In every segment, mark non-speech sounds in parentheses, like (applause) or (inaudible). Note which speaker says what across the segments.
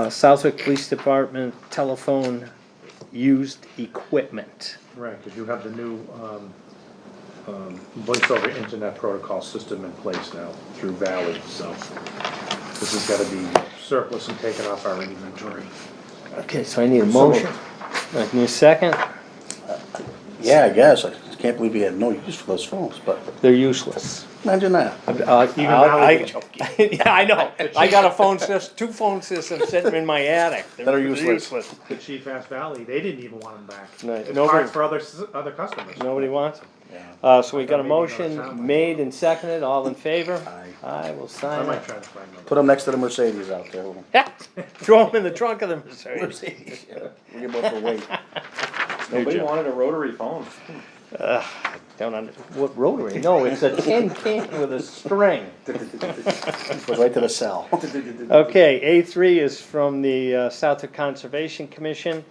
Speaker 1: Uh, Southwick Police Department telephone used equipment.
Speaker 2: Right, because you have the new um, um, voice over internet protocol system in place now through Valley, so this has got to be surplus and taken off our inventory.
Speaker 1: Okay, so I need a
Speaker 3: So
Speaker 1: motion. I need a second.
Speaker 3: Yeah, I guess. I just can't believe he had no use for those phones, but
Speaker 1: They're useless.
Speaker 3: imagine that.
Speaker 1: Uh, I'll-
Speaker 2: Valley
Speaker 1: I-
Speaker 2: can choke
Speaker 1: (laughs) Yeah, I know. I got a phone system, two phone systems sitting in my attic. They're-
Speaker 3: That are
Speaker 1: they're
Speaker 3: useless.
Speaker 2: The chief asked Valley, they didn't even want them back.
Speaker 1: No,
Speaker 2: It's
Speaker 1: nobody-
Speaker 2: hard for other, s- other customers.
Speaker 1: Nobody wants them.
Speaker 3: Yeah.
Speaker 1: Uh, so we got a
Speaker 2: Maybe another sound
Speaker 1: motion
Speaker 2: bite.
Speaker 1: made and seconded, all in favor?
Speaker 3: Aye.
Speaker 1: I will
Speaker 2: I
Speaker 1: sign
Speaker 2: might
Speaker 1: it.
Speaker 2: try to find them.
Speaker 3: Put them next to the Mercedes out there. We'll-
Speaker 1: (laughs) Yeah, throw them in the trunk of the Mercedes.
Speaker 3: Mercedes. yeah. We give them
Speaker 1: (laughs)
Speaker 3: for weight.
Speaker 4: Nobody
Speaker 1: job.
Speaker 4: wanted a rotary phone.
Speaker 1: Down on, what rotary? No, it's a tin can with a string.
Speaker 3: Goes right to the cell.
Speaker 1: Okay, A three is from the uh, Southwick Conservation Commission.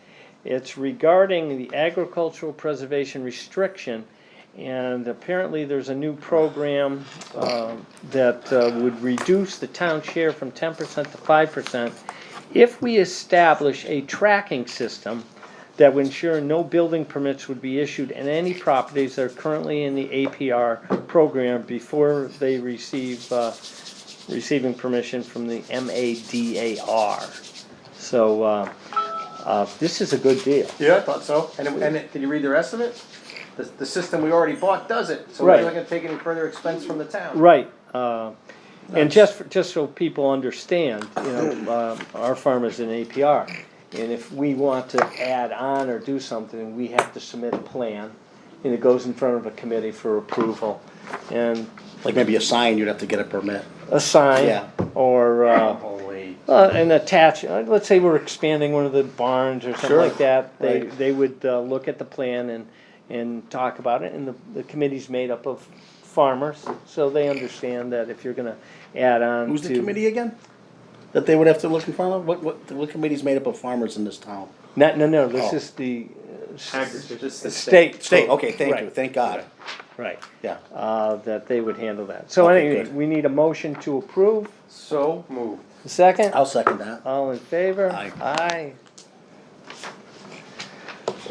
Speaker 1: It's regarding the agricultural preservation restriction. And apparently, there's a new program um, that uh, would reduce the town share from ten percent to five percent if we establish a tracking system that would ensure no building permits would be issued in any properties that are currently in the APR program before they receive uh, receiving permission from the MADAR. So, uh, uh, this is a good deal.
Speaker 5: Yeah, I thought so. And, it- and it- did you read the rest of it? The, the system we already bought does it, so
Speaker 1: Right.
Speaker 5: we're not gonna take any further expense from the town.
Speaker 1: Right, uh, and just, for- just so people understand, you know, uh, our farm is an APR. And if we want to add on or do something, we have to submit a plan, and it goes in front of a committee for approval. And
Speaker 3: Like maybe a sign, you'd have to get a permit.
Speaker 1: a sign,
Speaker 3: Yeah.
Speaker 1: or, uh,
Speaker 3: Holy.
Speaker 1: Uh, and attach, uh, let's say we're expanding one of the barns or something
Speaker 3: Sure,
Speaker 1: like that, they,
Speaker 3: right.
Speaker 1: they would, uh, look at the plan and, and talk about it, and the, the committee's made up of farmers, so they understand that if you're gonna add on to.
Speaker 3: Who's the committee again? That they would have to look in front of? What, what, what committee's made up of farmers in this town?
Speaker 1: No, no, no, this
Speaker 3: Oh.
Speaker 1: is the uh, s-
Speaker 2: Agri-
Speaker 5: Just the
Speaker 1: state.
Speaker 3: State, Oh, okay, thank you,
Speaker 1: Right,
Speaker 3: thank God.
Speaker 1: Right,
Speaker 3: Yeah.
Speaker 1: uh, that they would handle that. So
Speaker 3: Okay,
Speaker 1: anyway,
Speaker 3: good.
Speaker 1: we need a motion to approve,
Speaker 4: So moved.
Speaker 1: second?
Speaker 3: I'll second that.
Speaker 1: All in favor?
Speaker 3: Aye.
Speaker 1: Aye.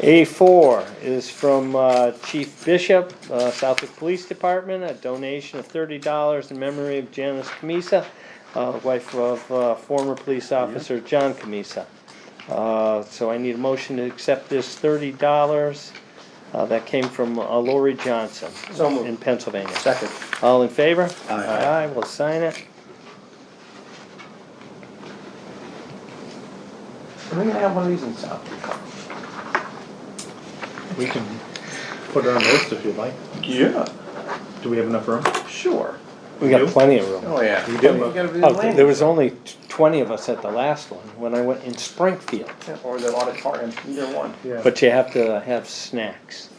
Speaker 1: A four is from uh, Chief Bishop, uh, Southwick Police Department, a donation of thirty dollars in memory of Janice Camisa, uh, wife of uh, former police officer John Camisa. Uh, So I need a motion to accept this thirty dollars that came from uh, Lori Johnson
Speaker 4: So moved.
Speaker 1: in Pennsylvania.
Speaker 3: Second.
Speaker 1: All in favor?
Speaker 3: Aye.
Speaker 1: Aye, we'll sign it.
Speaker 4: Are we gonna have one of these in South?
Speaker 2: We can put it on the list if you'd like.
Speaker 4: Yeah,
Speaker 2: Do we have enough room?
Speaker 4: sure.
Speaker 1: We got
Speaker 2: You?
Speaker 1: plenty of room.
Speaker 4: Oh, yeah.
Speaker 2: We
Speaker 5: You
Speaker 2: do.
Speaker 5: gotta be
Speaker 1: Oh, th- there
Speaker 5: lame.
Speaker 1: was only t- twenty of us at the last one, when I went in Springfield,
Speaker 4: Or the auditorium, either one.
Speaker 2: Yeah.
Speaker 1: but you have to have snacks.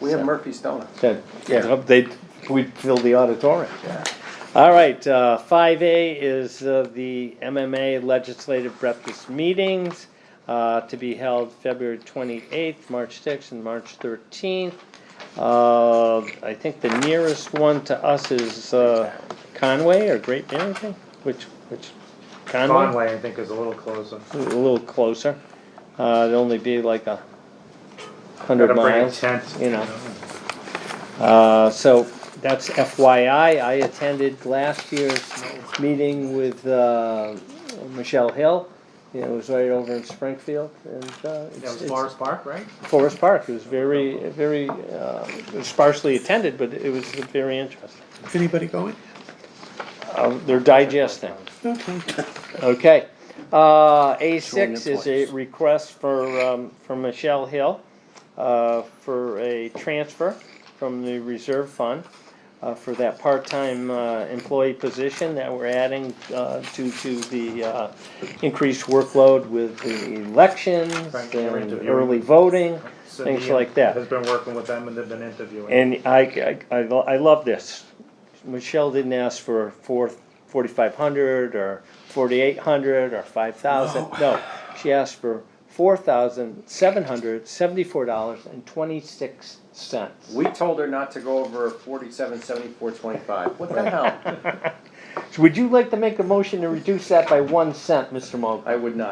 Speaker 5: We have Murphy's Donuts.
Speaker 1: That,
Speaker 3: Yeah.
Speaker 1: they, we fill the auditorium.
Speaker 5: Yeah.
Speaker 1: All right, uh, five A is, uh, the MMA Legislative Breakfast Meetings, uh, to be held February twenty-eighth, March sixth, and March thirteenth. Uh, I think the nearest one to us is, uh, Conway or Great Barrington, which, which, Conway?
Speaker 2: Conway, I think, is a little closer.
Speaker 1: a little closer. Uh, it'd only be like a
Speaker 2: Gotta
Speaker 1: hundred
Speaker 2: bring a
Speaker 1: miles,
Speaker 2: tent.
Speaker 1: you know. Uh, so that's FYI. I attended last year's meeting with uh, Michelle Hill. You know, it was right over in Springfield, and uh,
Speaker 2: That
Speaker 1: it's,
Speaker 2: was
Speaker 1: it's
Speaker 2: Forest Park, right?
Speaker 1: Forest Park. It was very, very uh, sparsely attended, but it was very interesting.
Speaker 3: Is anybody going?
Speaker 1: Um, they're digesting.
Speaker 3: Okay.
Speaker 1: Okay, uh, A
Speaker 3: Showing
Speaker 1: six
Speaker 3: its
Speaker 1: is a
Speaker 3: lights.
Speaker 1: request for, um, from Michelle Hill, uh, for a transfer from the reserve fund, uh, for that part-time, uh, employee position that we're adding, uh, due to the, uh, increased workload with the elections
Speaker 2: Right, they're
Speaker 1: and
Speaker 2: interviewing.
Speaker 1: early voting,
Speaker 2: Cindy
Speaker 1: things like that.
Speaker 2: Has been working with them and they've been interviewing.
Speaker 1: And I, I, I lo- I love this. Michelle didn't ask for four, forty-five hundred or forty-eight hundred or five thousand. No, she asked for four thousand seven hundred seventy-four dollars and twenty-six cents.
Speaker 5: We told her not to go over forty-seven, seventy-four, twenty-five. What the hell?
Speaker 1: Would you like to make a motion to reduce that by one cent, Mr. Mogul?
Speaker 5: I would not.